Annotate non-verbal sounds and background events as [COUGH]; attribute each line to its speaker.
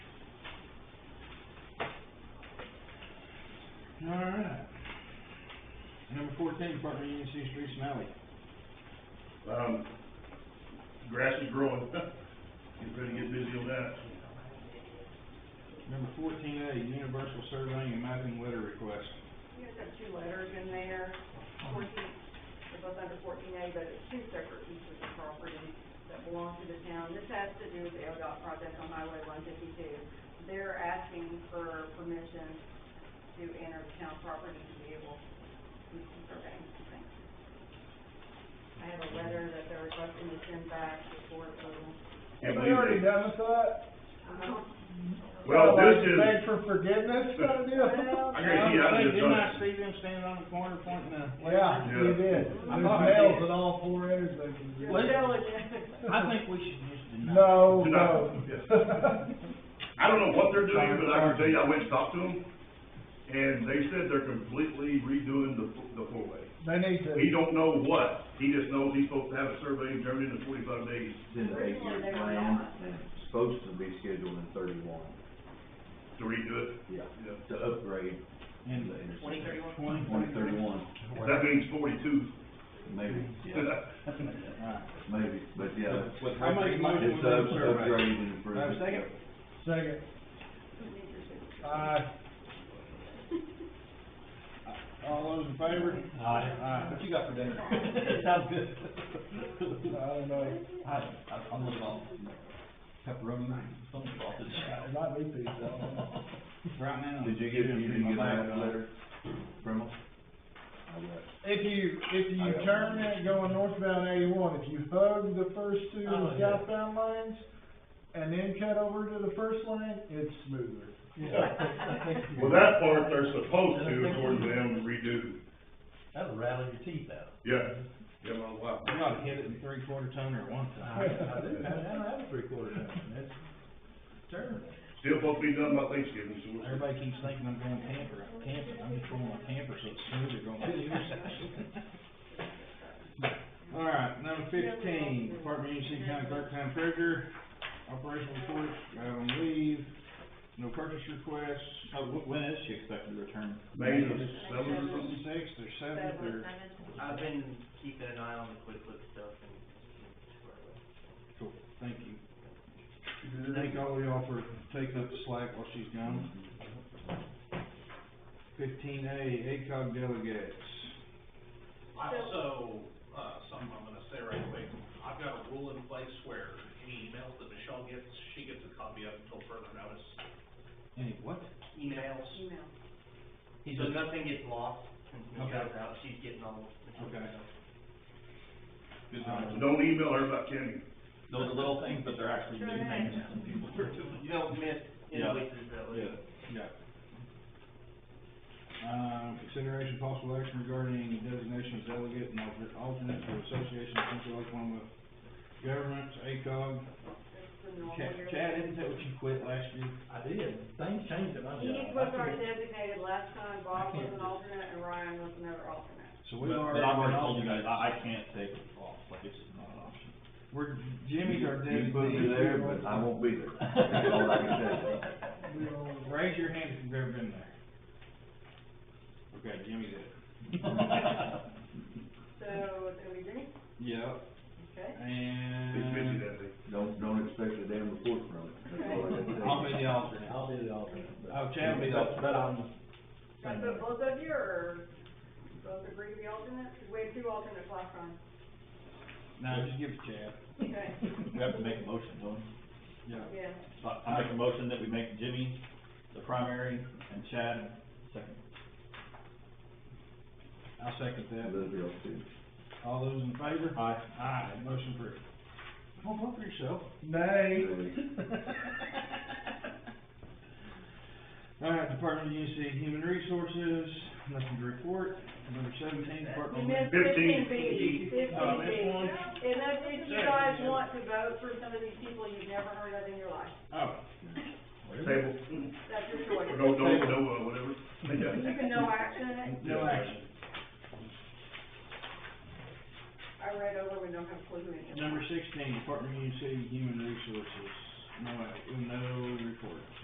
Speaker 1: All right. Number fourteen, Department of Union City Streets and Alley.
Speaker 2: Um, grass is growing, [LAUGHS] get ready to get busy on that.
Speaker 1: Number fourteen A, Universal Surveying and Mapping Letter Request.
Speaker 3: You guys have two letters in there, fourteen, they're both under fourteen A, but it's two separate pieces of property that belong to the town. This has to do with the ODOT project on Highway one fifty-two. They're asking for permission to enter the town property to be able to do some surveying. Thanks. I have a letter that they're requesting to send back before approval.
Speaker 2: Can't
Speaker 4: We already
Speaker 2: believe it.
Speaker 4: done with that?
Speaker 3: Uh-huh.
Speaker 2: Well,
Speaker 4: Kinda
Speaker 2: this
Speaker 4: like
Speaker 2: is-
Speaker 4: Beg for forgiveness kind of [LAUGHS] deal?
Speaker 2: I guarantee you, I
Speaker 1: Hey,
Speaker 2: was just
Speaker 1: Didn't I
Speaker 2: on,
Speaker 1: see them standing on the corner pointing the?
Speaker 4: Yeah,
Speaker 2: Yeah.
Speaker 4: you
Speaker 1: I
Speaker 4: did. There's
Speaker 1: thought I
Speaker 4: nails
Speaker 1: did.
Speaker 4: at all four intersections.
Speaker 3: You're
Speaker 1: Well,
Speaker 3: [LAUGHS] diligent.
Speaker 1: I think we should just deny.
Speaker 4: No,
Speaker 2: Did
Speaker 4: no.
Speaker 2: I? I don't know what they're doing, but I can tell you, I went and talked to them, and they said they're completely redoing the, f- the four-way.
Speaker 4: [LAUGHS] They need
Speaker 2: He
Speaker 4: to,
Speaker 2: don't know what, he just knows he's supposed to have a survey in Germany in forty-five days.
Speaker 5: Did the
Speaker 3: Originally,
Speaker 5: eight-year
Speaker 3: they were
Speaker 5: plan,
Speaker 3: not.
Speaker 5: and it's supposed to be scheduled in thirty-one,
Speaker 2: to redo it.
Speaker 5: yeah,
Speaker 2: Yeah.
Speaker 5: to upgrade
Speaker 1: And
Speaker 5: the intersection.
Speaker 1: twenty thirty-one?
Speaker 5: Twenty thirty-one,
Speaker 2: That means forty-two.
Speaker 5: maybe, yeah,
Speaker 1: Right.
Speaker 5: maybe, but yeah.
Speaker 1: With- with- I make a motion with
Speaker 5: It's
Speaker 1: the
Speaker 5: up,
Speaker 1: survey.
Speaker 5: upgrade and
Speaker 1: Do
Speaker 5: improve.
Speaker 1: I have a second?
Speaker 4: second, aye,
Speaker 1: All those in favor? Aye. Aye. What you got for [LAUGHS] dinner? Sounds good.
Speaker 4: I
Speaker 1: [LAUGHS]
Speaker 4: don't know,
Speaker 6: I, I'm looking off pepperoni, something sausage.
Speaker 4: it might be pizza, I don't know.
Speaker 1: Right now.
Speaker 5: [LAUGHS] Did you get, you didn't get
Speaker 1: My
Speaker 5: that
Speaker 1: bag.
Speaker 5: letter from us? I got it.
Speaker 4: If you, if
Speaker 5: I
Speaker 4: you
Speaker 5: got
Speaker 4: turn
Speaker 5: one.
Speaker 4: it going northbound eighty-one, if you hug the first two
Speaker 6: Oh, yeah.
Speaker 4: southbound lanes and then cut over to the first lane, it's smoother.
Speaker 1: [LAUGHS]
Speaker 2: Well, that part, they're supposed to, according to them, redo.
Speaker 6: That'll rattle your teeth out.
Speaker 2: Yeah, yeah, my wife.
Speaker 1: You ought to hit it in three quarter ton or one ton.
Speaker 6: I, I do, I don't have a three quarter pound, that's terrible.
Speaker 2: Still supposed to be done by Thanksgiving, so we'll-
Speaker 1: Everybody keeps thinking I'm going camper, camping, I'm just throwing my camper so it's smoother going to yours. All right, number fifteen, Department of Union City County Clerk Town Treasurer, operational report, out on leave, no purchase requests. Oh,
Speaker 6: Uh, wh- when is she expected to return?
Speaker 2: May the seventh or something.
Speaker 1: Sixth or seventh or,
Speaker 7: I've been keeping an eye on the quick look stuff and. and-
Speaker 1: cool, thank you. Thank all of y'all for taking up the slack while she's gone. Fifteen A, ACOG delegates.
Speaker 8: Also, uh, something I'm gonna say right away, I've got a rule in place where any emails that Michelle gets, she gets a copy of until further notice.
Speaker 1: Any what?
Speaker 7: Emails,
Speaker 3: Email.
Speaker 7: so nothing gets lost since Michelle's out, she's getting all.
Speaker 1: Okay.
Speaker 2: So Don't email her about Kenny.
Speaker 6: Those are little things, but they're actually big things to some people.
Speaker 7: You don't miss
Speaker 6: Yeah.
Speaker 7: invoices that way.
Speaker 6: Yeah.
Speaker 1: Yeah. Uh, consideration possible action regarding designation of delegate and alter- alternate for Association of Central Oklahoma Governments, ACOG.
Speaker 3: That's the normal
Speaker 1: Chad,
Speaker 3: yearly.
Speaker 1: Chad, isn't that what you quit last year?
Speaker 6: I did, things changed in my job.
Speaker 3: He
Speaker 6: I
Speaker 3: was our
Speaker 6: couldn't-
Speaker 3: designated last time, Bob
Speaker 6: I
Speaker 3: was
Speaker 6: can't
Speaker 3: an
Speaker 6: do it.
Speaker 3: alternate, and Ryan was another alternate.
Speaker 1: So
Speaker 6: But,
Speaker 1: we've already.
Speaker 6: but I've already told you guys, I, I can't take it off, like, it's just not an option.
Speaker 1: We're, Jimmy's our
Speaker 5: You put me
Speaker 1: designee.
Speaker 5: there, but I won't be there, that's all I can tell you.
Speaker 4: We don't-
Speaker 1: Raise your hand if you've ever been there. Okay, Jimmy's it. [LAUGHS]
Speaker 3: So, it's gonna be Jimmy,
Speaker 1: Yeah.
Speaker 3: okay?
Speaker 2: He's busy
Speaker 1: And
Speaker 2: that day.
Speaker 5: Don't, don't expect a damn report from it, that's all I can tell you.
Speaker 1: I'll be the alternate.
Speaker 6: I'll be the alternate. but-
Speaker 1: Oh, Chad will be the alternate.
Speaker 6: But I'm,
Speaker 3: Should I put both of you, or both agree to be alternate? 'Cause we had two alternates last time,
Speaker 1: No, just give it to Chad.
Speaker 3: okay?
Speaker 6: we have to make a motion, don't we?
Speaker 1: Yeah.
Speaker 3: Yeah,
Speaker 6: So I- I make a motion that we make Jimmy the primary and Chad second.
Speaker 1: I'll second that.
Speaker 5: That'll be all too.
Speaker 1: All those in favor?
Speaker 6: Aye.
Speaker 1: Aye, motion approved. Don't vote for yourself.
Speaker 4: Nay.
Speaker 1: [LAUGHS] All right, Department of Union City Human Resources, nothing to report. Number seventeen,
Speaker 3: You
Speaker 1: Department of.
Speaker 3: missed
Speaker 2: Fifteen.
Speaker 3: fifteen B, fifteen
Speaker 1: Oh, this
Speaker 3: B.
Speaker 1: one?
Speaker 3: And that's if you guys want to vote for some of these people you've never heard of in your life,
Speaker 1: Oh,
Speaker 2: Table,
Speaker 3: that's your choice.
Speaker 2: or no, no, no, uh, whatever.
Speaker 3: You can no action it,
Speaker 1: no action.
Speaker 3: I read over, we don't have a clue who it is.
Speaker 1: Number sixteen, Department of Union City Human Resources, no, act- no report.